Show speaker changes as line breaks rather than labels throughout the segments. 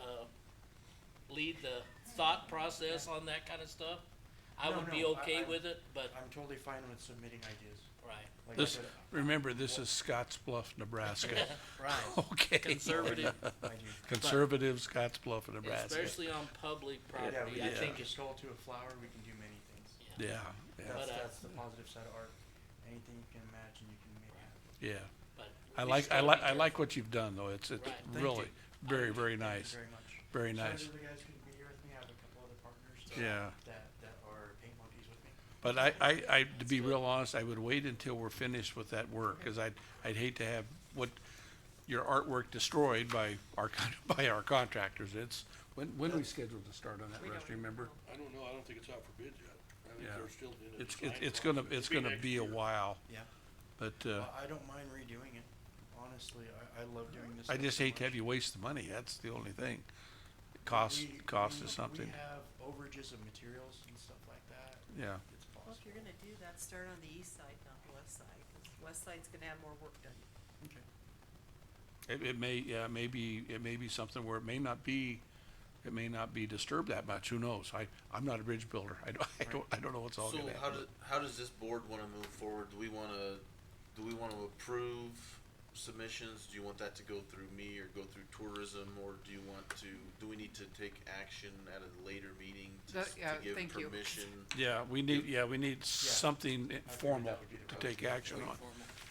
uh, lead the thought process on that kind of stuff, I
No,
would be
no, I-
okay
I-
with it, but,
I'm totally fine with submitting ideas.
right,
Like I
This,
said,
remember, this is Scotts Bluff, Nebraska.
right,
Okay.
conservative,
mind you. But-
Conservative Scotts Bluff, Nebraska.
especially on public
Yeah, we
property, I
can
think
change a
it's,
skull to a flower, we can do many things.
yeah,
Yeah, yeah,
That's,
But, uh,
that's the positive side of art. Anything you can imagine, you can make happen.
yeah.
but.
I
we
like,
just
I
gotta
like,
be
I like what you've done, though. It's, it's
Right. Thank
really
you.
very, very
Thank
nice,
you very much.
very
Sorry
nice.
the other guys couldn't be here with me. I have a couple other partners. uh,
Yeah.
That, that are paint monkeys with me.
But I, I, I, to be real honest, I would wait until we're finished with that work, cause I'd, I'd hate to have what, your artwork destroyed by our, con- by our contractors. It's, when, when are we scheduled to start on that, Russ, do you remember?
I don't know, I don't think it's out for bid yet. I think
Yeah.
they're still in the
It's, it's,
design
it's gonna,
process.
it's gonna
next
be a
year.
while,
Yeah.
but, uh,
I don't mind redoing it. Honestly, I, I love doing this.
I
stuff
just
so
hate to
much.
have you waste the money. That's the only thing. Cost,
We-
cost
we-
is something,
We have overages of materials and stuff like that.
yeah.
It's
Well, if
possible.
you're gonna do that, start on the east side, not the west side, 'cause west side's gonna have more work done.
Okay.
It, it may, yeah, it may be, it may be something where it may not be, it may not be disturbed that much. Who knows? I, I'm not a bridge builder. I don't, I don't, I don't know what's all
So
gonna
how
happen.
does how does this board want to move forward? Do we want to do we want to approve submissions? Do you want that to go through me or go through tourism, or do you want to do we need to take action at a later meeting to,
That-
s-
yeah,
to give
thank you.
permission?
Yeah, we need, yeah, we need something formal
that would be the
to
approach.
take action on.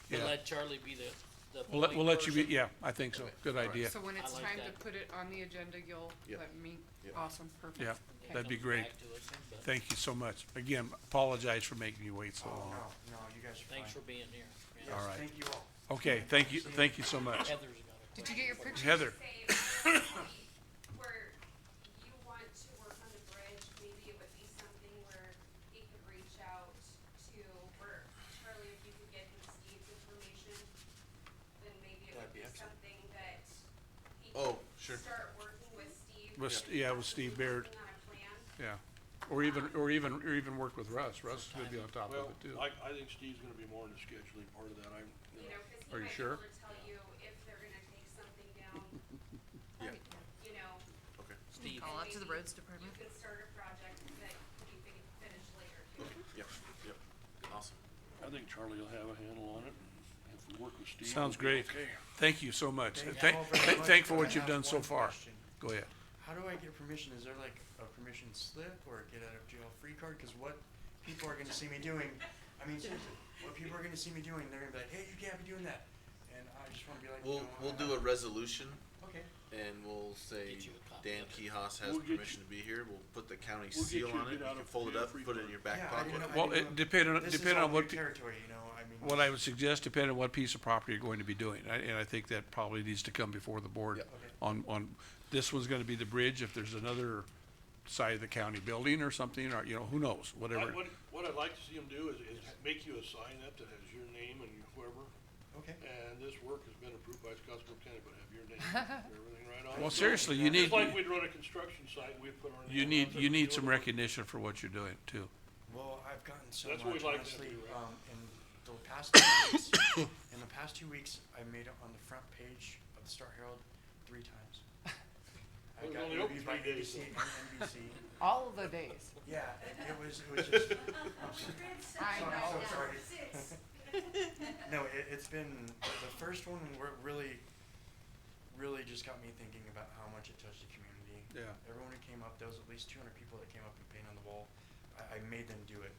We'll
Yeah.
let Charlie be the, the.
We'll let,
point
we'll let you be,
person.
yeah, I think so. Good idea.
So when
I
it's
like
time to
that.
put it on the agenda, you'll
Yeah.
let me,
Yeah.
awesome, perfect.
Yeah.
Okay.
That'd be
Comes
great.
back to us, but
Thank you so much. Again, apologize for making you wait so
Oh,
long.
no, no, you guys are fine.
Thanks for being here. Yeah.
Yes,
All right.
Thank you all.
Okay, thank you, thank you so much.
Heather's got a
Did
question
you get your
for
picture?
Heather,
say where you want to work on the bridge, maybe it would be something where he could reach out to, or Charlie, if you could get him Steve's information, then maybe it
That'd be
would be
excellent.
something that he
Oh,
could
sure.
start working with Steve.
With S- yeah, with Steve Baird.
possibly working On a plan.
yeah. Or even, or even, or even work with Russ. Russ would be on top of
Well,
it too.
I, I think Steve's gonna be more in the scheduling part of that, I'm, you know,
You know, 'cause he
Are you
might be
sure?
able to tell you if they're gonna take something down,
Yeah.
you know,
Okay.
Steve.
Call
and
out to the
maybe
roads department.
You can start a project that you can finish later too.
Yep. Yep. Awesome.
I think Charlie will have a handle on it, and if we work with Steve.
Sounds
it'll
great.
be Okay.
Thank you so much.
Thank you
Thank,
all very
thank-
much.
thank for
I
what you've
have
done so
one
far.
question.
Go ahead.
How do I get permission? Is there like a permission slip or a get out of jail free card? Because what people are gonna see me doing, I mean, seriously, what people are gonna see me doing, they're gonna be like, hey, you can't be doing that. And I just wanna be like,
We'll
no.
we'll do a resolution
Okay,
and we'll say
Get you a copy
Dan
of it.
Kehos has
We'll get
permission to be here. We'll put the county
We'll get
seal
you a
on
get
it. You
out
can
of
fold it
jail
up,
free
put it
card.
in your back
Yeah, I
pocket.
didn't know-
Well, it depended,
this is
depended
all
on
new
what, pe-
territory, you know, I mean.
what I would suggest depended on what piece of property you're going to be doing. I- And I think that probably needs to come before the board
Yep.
Okay.
on, on, this one's gonna be the bridge. If there's another side of the county building or something, or, you know, who knows,
I,
whatever.
what, what I'd like to see him do is, is make you a sign up that has your name and whoever,
Okay,
and this work has been approved by Scottsville County, but have your name and everything right on it.
Well, seriously, you need,
Just like we'd run a construction site, we'd put our name.
you
on
need,
it,
you need
do
some
it.
recognition for what you're doing too.
well, I've gotten so
That's what
much,
we'd like to
honestly,
do, right?
um, in the past two weeks, in the past two weeks, I made it on the front page of the Star Herald three times. I
It was
got
only open
interviewed by
three days,
ABC and NBC.
All of the days.
Yeah, it was, it was just,
I
Sorry,
know.
so sorry. no, it, it's been, the first one where it really, really just got me thinking about how much it touched the community.
Yeah.
Everyone who came up, there was at least two hundred people that came up and painted on the wall. I, I made them do it.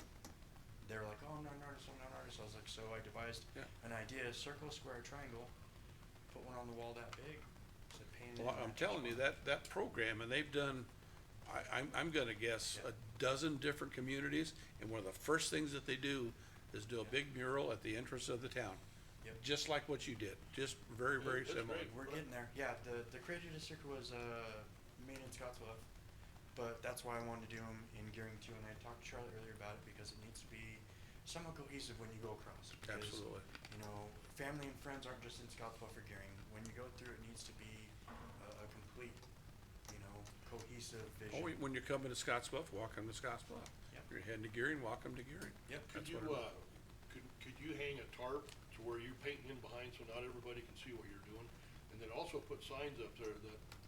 They were like, oh, I'm not an artist, I'm not an artist. I was like, so I devised
Yeah.
an idea, circle, square, triangle, put one on the wall that big, said painted.
Well, I'm telling you, that, that program, and they've done, I, I'm, I'm gonna guess, a dozen different communities, and one of the first things that they do is do a big mural at the entrance of the town.
Yep.
Just like what you did, just very, very
that's
similar.
great.
We're getting there. Yeah, the the creative district was uh, made in Scottsbluff, but that's why I wanted to do them in Gearing Two, and I talked to Charlotte earlier about it because it needs to be somewhat cohesive when you go across. because,
Absolutely.
You know, family and friends aren't just in Scottsbluff or Gearing. When you go through, it needs to be a, a complete, you know, cohesive vision.
Or when you're coming to Scottsbluff, walk 'em to Scottsbluff.
Yep.
If you're heading to Gearing, walk 'em to Gearing.
Yep.
That's
Could you,
what it-
uh, could, could you hang a tarp to where you're painting in behind so not everybody can see what you're doing? And then also put signs up there that